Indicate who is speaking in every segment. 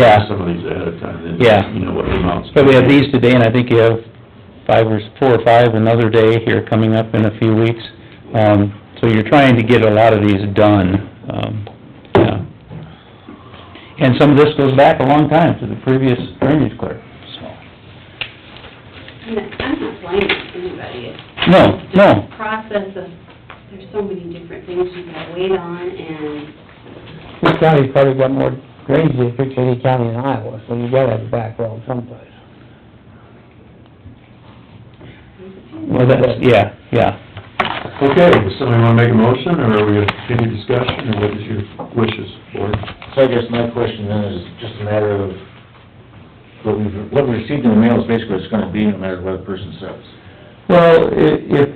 Speaker 1: Yeah.
Speaker 2: Some of these ahead of time, then,
Speaker 1: Yeah.
Speaker 2: you know what the amounts.
Speaker 1: So we have these today, and I think you have five or, four or five another day here coming up in a few weeks. Um, so you're trying to get a lot of these done, um, yeah. And some of this goes back a long time to the previous drainage clerk, so.
Speaker 3: I'm not- I'm not blaming anybody. It's
Speaker 1: No, no,
Speaker 3: the process of, there's so many different things you gotta wait on, and
Speaker 4: This county's probably got more drainage districts than any county in Iowa, so you gotta have a back road someplace.
Speaker 1: well, that's, yeah, yeah.
Speaker 2: Okay, does somebody wanna make a motion, or are we gonna continue discussion, or what is your wishes, board?
Speaker 5: So I guess my question then is just a matter of, what we've, what we received in the mail is basically what it's gonna be no matter what a person says.
Speaker 4: Well, i- if,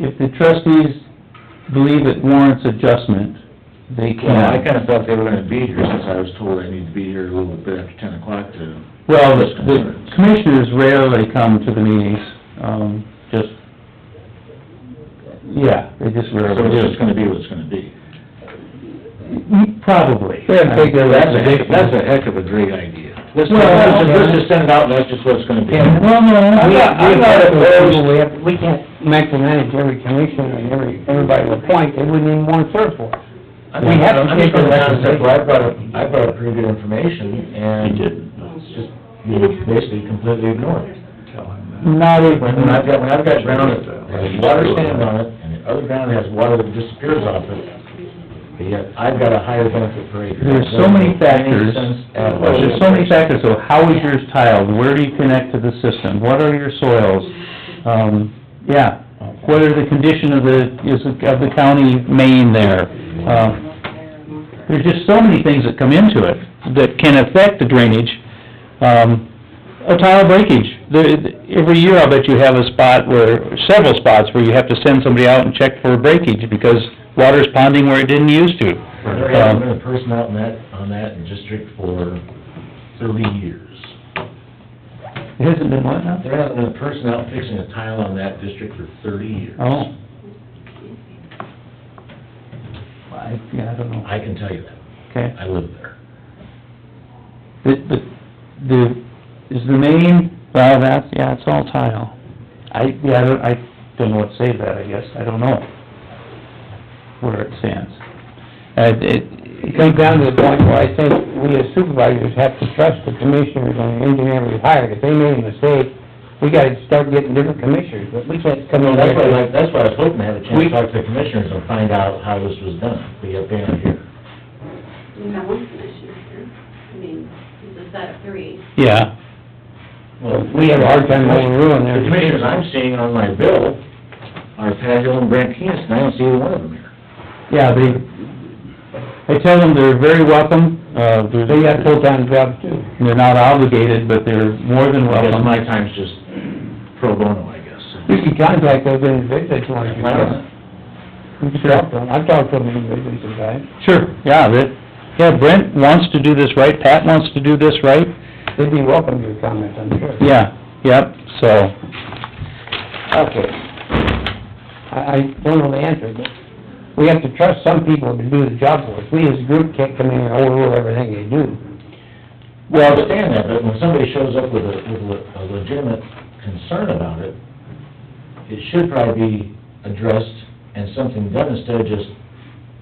Speaker 4: if the trustees believe it warrants adjustment, they
Speaker 5: Well, I
Speaker 4: can.
Speaker 5: kinda thought they were gonna be here since I was told I need to be here a little bit after ten o'clock to,
Speaker 4: Well, the- the commissioners rarely come to the meetings, um, just, yeah, they just
Speaker 5: so
Speaker 4: rarely
Speaker 5: it's
Speaker 4: do.
Speaker 5: just gonna be what it's gonna be.
Speaker 4: Probably.
Speaker 5: That's a heck, that's a heck of a great idea. Let's,
Speaker 4: Well,
Speaker 5: let's just- let's
Speaker 4: yeah.
Speaker 5: just send it out, and that's just what it's gonna be.
Speaker 4: And, well, no,
Speaker 5: I'm
Speaker 4: we,
Speaker 5: not- I'm
Speaker 4: we
Speaker 5: not
Speaker 4: have to,
Speaker 5: opposed.
Speaker 4: we have, we can't micromanage every commissioner and every, everybody to a point, they wouldn't even want to serve for us.
Speaker 5: I'm just-
Speaker 4: We have to
Speaker 5: I'm just
Speaker 4: take the
Speaker 5: going down to
Speaker 4: recommendation.
Speaker 5: step, well, I brought up, I brought up pretty good information,
Speaker 2: He
Speaker 5: and
Speaker 2: did,
Speaker 5: it's just, you know, basically completely ignored it.
Speaker 2: tell him
Speaker 4: Not
Speaker 5: When, when I've got, when I've got ground that has water stands on it, and the other ground has water that disappears off it, but yet I've got a higher benefit per acre.
Speaker 4: There's so many
Speaker 5: Doesn't make any
Speaker 4: factors,
Speaker 5: sense at all.
Speaker 4: there's so many factors, so how is yours tiled, where do you connect to the system, what are your soils? Um, yeah, what are the condition of the, is, it- of the county main there? Um, there's just so many things that come into it that can affect the drainage. Um, a tile breakage, the, every year I bet you have a spot where, several spots where you have to send somebody out and check for a breakage because water's ponding where it didn't used to. Um,
Speaker 5: There hasn't been a person out in that, on that district for thirty years.
Speaker 4: It hasn't been what now?
Speaker 5: There hasn't been a person out fixing a tile on that district for thirty years.
Speaker 4: Oh. I, yeah, I don't know,
Speaker 5: I can tell you that,
Speaker 4: okay.
Speaker 5: I live there.
Speaker 4: The, the, the, is the main, well, that's, yeah, it's all tile. I, yeah, I don't, I don't know what to say to that, I guess, I don't know where it stands. Uh, it. It comes down to the point where I think we as supervisors have to trust the commissioners and the engineer we hired. If they made a mistake, we gotta start getting different commissioners, but we can't come in
Speaker 5: Well, that's why,
Speaker 4: there.
Speaker 5: like, that's why I was hoping to have a chance
Speaker 4: We-
Speaker 5: to talk to the commissioners and find out how this was done, but yet they aren't here.
Speaker 3: you have one commissioner here. I mean, it's a set of three.
Speaker 4: Yeah,
Speaker 5: Well,
Speaker 4: we have a hard time overruling their
Speaker 5: The commissioners I'm seeing on my bill are Pat Hill and Brent Keenest, and I don't see either one of them here.
Speaker 4: yeah, they, I tell them they're very welcome, uh, they're... They got full-time jobs too. They're not obligated, but they're more than
Speaker 5: I guess
Speaker 4: welcome.
Speaker 5: my time's just pro bono, I guess.
Speaker 4: You can contact those individuals if you want
Speaker 5: Why not?
Speaker 4: You can talk to them, I've talked to them individually sometimes. Sure, yeah, that, yeah, Brent wants to do this right, Pat wants to do this right. They'd be welcome to your comments, I'm sure. Yeah, yep, so. Okay. I, I don't know the answer, but we have to trust some people to do the job for us. We as a group can't come in and overrule everything they do.
Speaker 5: Well, I understand that, but when somebody shows up with a, with a legitimate concern about it, it should probably be addressed and something done instead of just,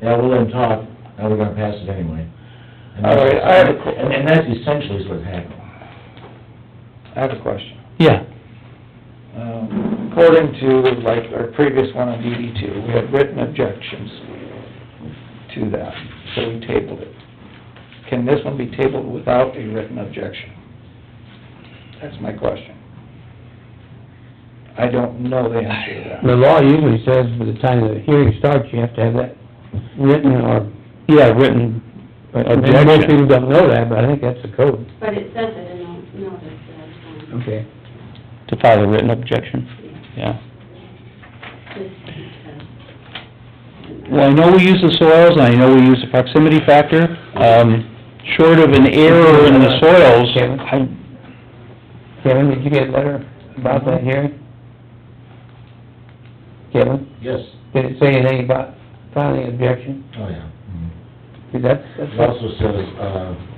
Speaker 5: yeah, we'll let them talk, now we're gonna pass it anyway. And that's-
Speaker 6: All right, I have a qu-
Speaker 5: And, and that's essentially what's happening.
Speaker 6: I have a question.
Speaker 4: Yeah,
Speaker 6: Um, According to, like, our previous one on DD two, we had written objections to that, so we tabled it. Can this one be tabled without a written objection? That's my question. I don't know the answer to that.
Speaker 4: the law usually says by the time the hearing starts, you have to have that written or... Yeah, written objection. Most people don't know that, but I think that's the code.
Speaker 3: But it says it in the notice that, um,
Speaker 4: Okay. To file a written objection, yeah.
Speaker 3: this is, uh,
Speaker 1: Well, I know we use the soils, and I know we use the proximity factor, um, short of an error in the soils, I,
Speaker 4: Kevin, did you get a letter about that hearing? Kevin,
Speaker 5: Yes.
Speaker 4: did it say anything about filing objection?
Speaker 5: Oh, yeah. Mhm.
Speaker 6: Mm-hmm.
Speaker 4: See, that's, that's
Speaker 5: It
Speaker 4: what
Speaker 5: also says, uh,